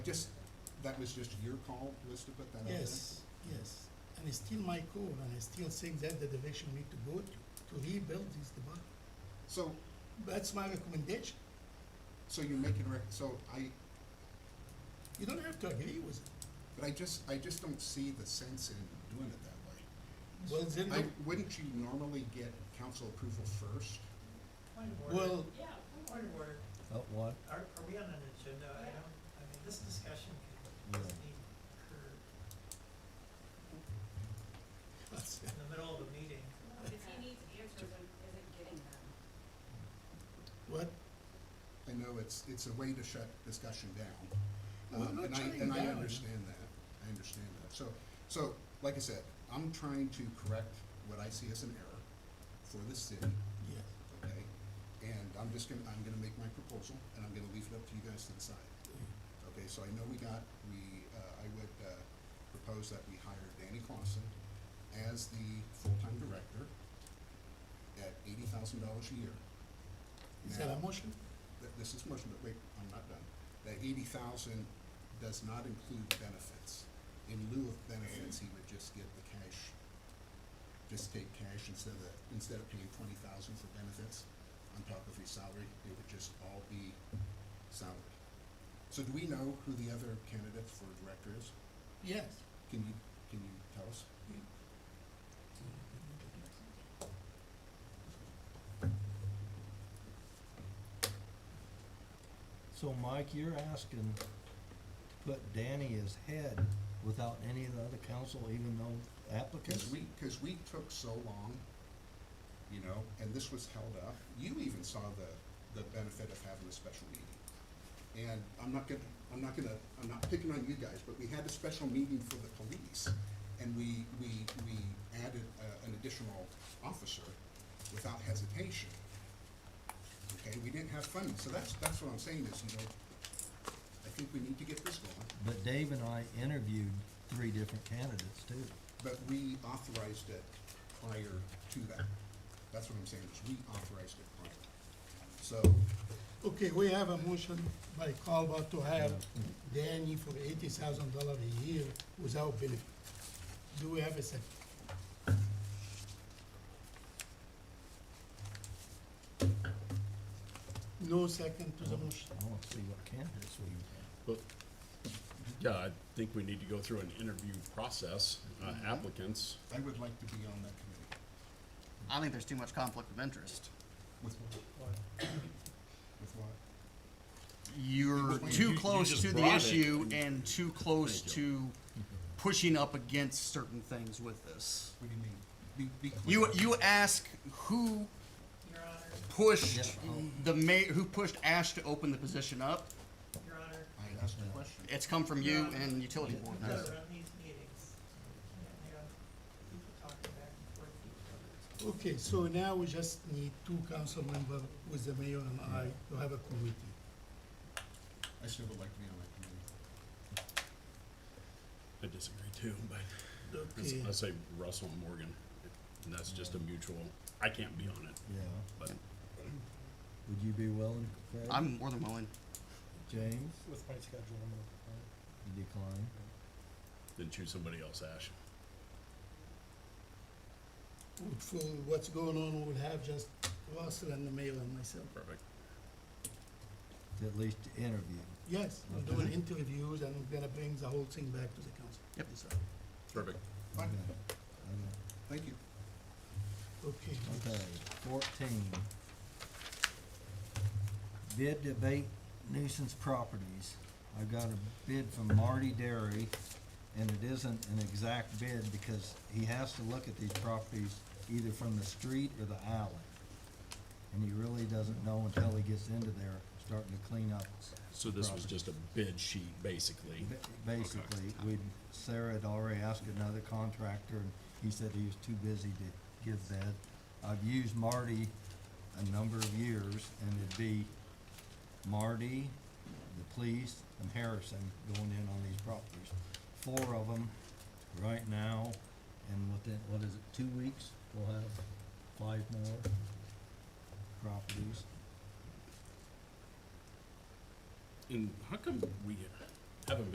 Just, that was just your call, was to put that out there? Yes, yes. And it's still my call, and I still think that the direction we need to go to, to rebuild this department. So, That's my recommendation. so you're making, rec- so I, You don't have to agree with it. but I just, I just don't see the sense in doing it that Well, then, way. I, wouldn't you normally get council approval first? Point of order. well, Yeah, point of order. Oh, what? Are, are we on an agenda item? I mean, this discussion could, doesn't need to occur that's- in the middle of a meeting. Because he needs answers and isn't getting them. what, I know it's, it's a way to shut discussion down. We're Um, not and I- shutting And I down. understand that, I understand that. So, so, like I said, I'm trying to correct what I see as an error for the city, yes. okay? And I'm just gonna, I'm gonna make my proposal, and I'm gonna leave it up to you guys to decide. Okay, so I know we got, we, uh, I would, uh, propose that we hire Danny Clausen as the full-time director at eighty thousand dollars a year. Is that a Now- motion? that this is motion, but wait, I'm not done. That eighty thousand does not include benefits. In lieu of benefits, he would just get the cash, just take cash instead of, instead of paying twenty thousand for benefits on top of his salary, it would just all be salary. So do we know who the other candidate for director is? Yes. Can you, can you tell us? So Mike, you're asking to put Danny as head without any of the other council even though applicants? Because we, because we took so long, you know, and this was held up. You even saw the, the benefit of having a special meeting. And I'm not gonna, I'm not gonna, I'm not picking on you guys, but we had a special meeting for the police. And we, we, we added uh, an additional officer without hesitation. Okay, we didn't have funding, so that's, that's what I'm saying is, you know, I think we need to get this going. But Dave and I interviewed three different candidates too. But we authorized it prior to that. That's what I'm saying, is we authorized it prior. So, Okay, we have a motion by Calvo to hire Danny for eighty thousand dollars a year without benefit. Do we have a second? No second to the motion. I wanna see what candidates we Well, yeah, I think we need to go through an interview process, uh, applicants. I would like to be on that committee I think there's too much conflict of interest. with what, Or- with what? You- You're you- too you close just to the brought it. issue and too close Thank to pushing up against certain things with this. What do you mean? Be, be clear. You, you ask who Your Honor, Yeah, pushed I'll- the ma- who pushed Ash to open the position up? Your Honor, I asked a question. It's come from you and utility board. you gotta run these meetings. You can't have people talking back and forth to each other. Okay, so now we just need two council members with the mayor and I to have a committee. I still would like to be on that committee. I disagree too, but it's- Okay, I say Russell and Morgan, and that's just a mutual, I can't be on it, Yeah, but would you be willing, Craig? I'm more than willing. James, With my schedule, I'm gonna, uh, you decline? then choose somebody else, Ash. for what's going on, we'll have just Russell and the mayor and myself. Perfect. To at least interview. Yes, we're doing interviews and we're gonna bring the whole thing back to the council. Yep. Perfect. Fine, Okay, thank you. Okay. Okay, fourteen. Bid debate nuisance properties. I got a bid from Marty Derry, and it isn't an exact bid because he has to look at these properties either from the street or the alley. And he really doesn't know until he gets into there, starting to clean up. So this was property. just a bid sheet, basically. Ba- Basically, we, Sarah had already asked another contractor, and he said he was too busy to give that. I've used Marty a number of years, and it'd be Marty, the police, and Harrison going in on these properties. Four of them right now, and within, what is it, two weeks, we'll have five more properties. And how come we, haven't